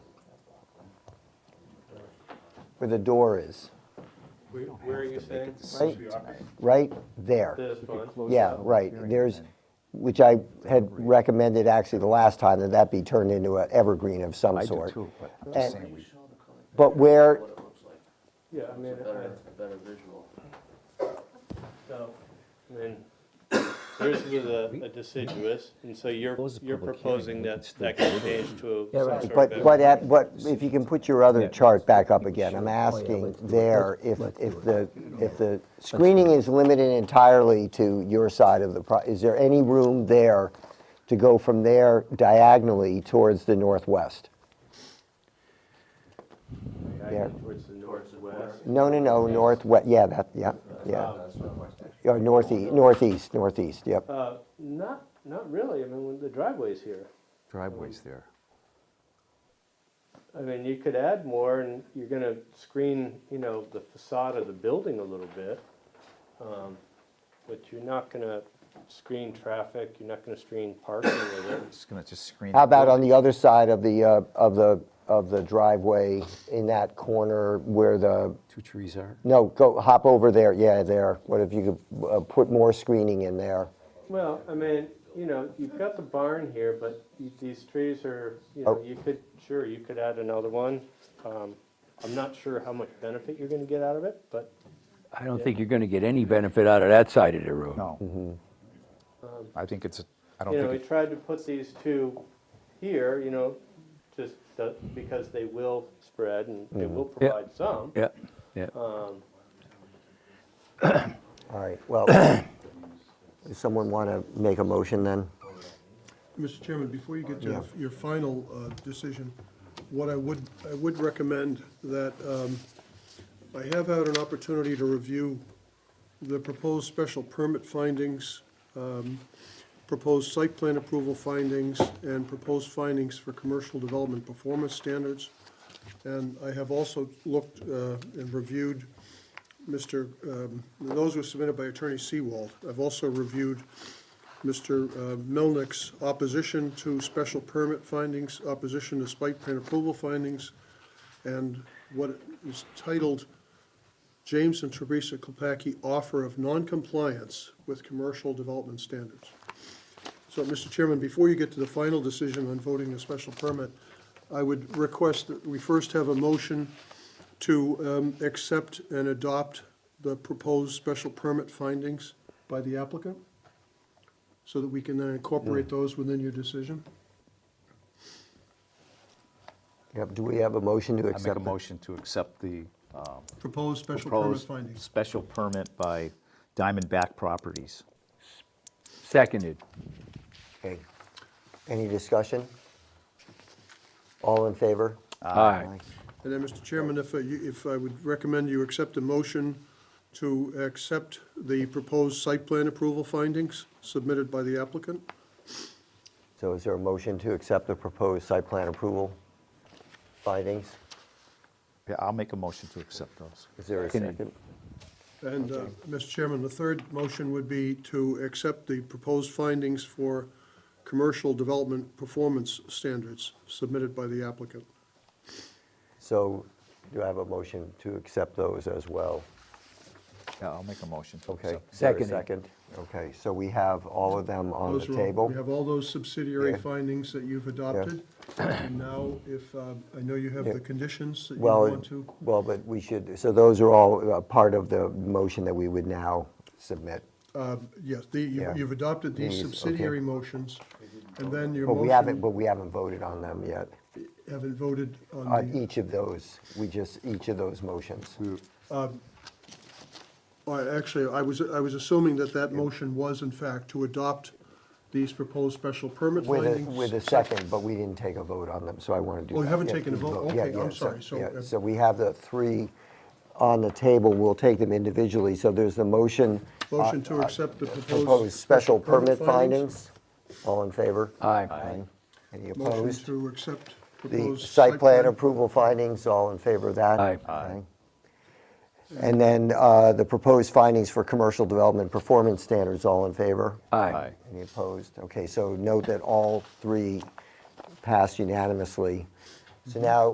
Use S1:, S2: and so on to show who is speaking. S1: where the door is,
S2: Where where are you saying?
S1: right, right there.
S2: This one?
S1: Yeah, right, there's, which I had recommended actually the last time, that that be turned into an evergreen of some
S3: I do
S1: sort.
S3: too, but I'm
S1: And-
S3: just saying we,
S1: But where,
S4: what it looks like.
S2: Yeah, I mean,
S4: It's a better, a better visual.
S2: so, I mean, yours was a a deciduous, and so you're,
S3: Close the
S2: you're
S3: public hearing,
S2: proposing
S3: we can
S2: that
S3: still
S2: that can change to some sort of.
S1: but, but
S2: better-
S1: at, but if you can put your other
S3: Yeah.
S1: chart back up again, I'm
S3: Sure. Oh, yeah,
S1: asking
S3: let's do it.
S1: there
S3: Let's-
S1: if,
S3: let's do
S1: if
S3: it.
S1: the, if the screening is limited entirely to your side of the, pro- is there any room there to go from there diagonally towards the northwest?
S2: Yeah, Towards the northwest.
S1: No, no, no, northwest, yeah, that, yeah, yeah. Or northeast, northeast, northeast, yep.
S2: Uh, Not, not really, I mean, when the driveway's here.
S3: driveway's there.
S2: I mean, you could add more, and you're gonna screen, you know, the facade of the building a little bit. um, But you're not gonna screen traffic, you're not gonna screen parking with it.
S3: Just gonna just screen.
S1: How about on the other side of the, uh, of the, of the driveway, in that corner where the,
S3: Two trees are.
S1: no, go, hop over there, yeah, there. What if you could uh, put more screening in there?
S2: Well, I mean, you know, you've got the barn here, but you- these trees are, you
S1: Oh.
S2: know, you could, sure, you could add another one. Um, I'm not sure how much benefit you're gonna get out of it, but
S5: I don't think you're going to get any benefit out of that side of the road.
S3: No. I think it's, I don't
S2: You know,
S3: think,
S2: we
S3: it-
S2: tried to put these two here, you know, just so- because they will spread and they
S3: Mm-hmm.
S2: will
S5: Yeah.
S2: provide some.
S5: Yeah, yeah.
S2: Um,
S1: All right, well, does someone want to make a motion then?
S6: Mr. Chairman, before you get to
S1: Yeah.
S6: your- your final uh, decision, what I would, I would recommend that, um, I have had an opportunity to review the proposed special permit findings, um, proposed site plan approval findings, and proposed findings for commercial development performance standards. And I have also looked uh, and reviewed Mr., um, those were submitted by Attorney Seawald. I've also reviewed Mr. uh, Melnick's opposition to special permit findings, opposition to site plan approval findings, and what is titled James and Teresa Kopacki Offer of Noncompliance with Commercial Development Standards. So, Mr. Chairman, before you get to the final decision on voting a special permit, I would request that we first have a motion to um, accept and adopt the proposed special permit findings by the applicant, so that we can then incorporate those within your decision.
S1: Yep, do we have a motion to
S3: I make
S1: accept?
S3: a
S1: it?
S3: motion to accept the uh,
S6: Proposed special permit
S3: proposed
S6: findings.
S3: special permit by Diamondback Properties.
S5: Seconded.
S1: Okay. Any discussion? All in favor?
S5: Aye.
S6: And then, Mr. Chairman, if, uh, you- if I would recommend you accept a motion to accept the proposed site plan approval findings submitted by the applicant.
S1: So is there a motion to accept the proposed site plan approval findings?
S3: Yeah, I'll make a motion to accept those.
S1: Is there a
S5: Seconded.
S1: second?
S6: And, uh, Mr. Chairman, the third motion would be to accept the proposed findings for commercial development performance standards submitted by the applicant.
S1: So do I have a motion to accept those as well?
S3: Yeah, I'll make a motion to
S1: Okay.
S3: accept.
S1: is there a
S5: Seconded.
S1: Second. Okay, so we have all of them on the
S6: Those are all-
S1: table.
S6: We have all those subsidiary
S1: Yeah.
S6: findings that you've adopted. And now, if, um, I know you have
S1: Yeah.
S6: the conditions that you
S1: Well,
S6: want to.
S1: well, but we should, so those are all uh, part of the motion that we would now submit.
S6: Um, Yes, the,
S1: Yeah.
S6: you- you've adopted these
S1: These, okay.
S6: subsidiary motions, and then your
S1: But we haven't, but
S6: motion,
S1: we haven't voted on them yet,
S6: haven't voted on
S1: on
S6: the,
S1: each of those. We just, each of those motions.
S6: Oh, actually, I was, I was assuming that that motion was in fact to adopt these proposed special permit
S1: With a,
S6: findings.
S1: with a second, but we didn't take a vote on them, so I want to do that.
S6: Oh, you haven't
S1: Yeah,
S6: taken a vote?
S1: yeah,
S6: Okay, I'm
S1: yeah,
S6: sorry, so,
S1: yeah,
S6: uh,
S1: So we have the three on the table, we'll take them individually. So there's the motion,
S6: Motion to accept the proposed.
S1: uh, proposed special permit findings. All in favor?
S5: Aye.
S1: Any
S6: Motion
S1: opposed?
S6: to accept
S1: The
S6: proposed.
S1: site plan approval findings, all in favor of that?
S5: Aye.
S1: And then uh, the proposed findings for commercial development performance standards, all in favor?
S5: Aye.
S1: Any opposed? Okay, so note that all three passed unanimously. So now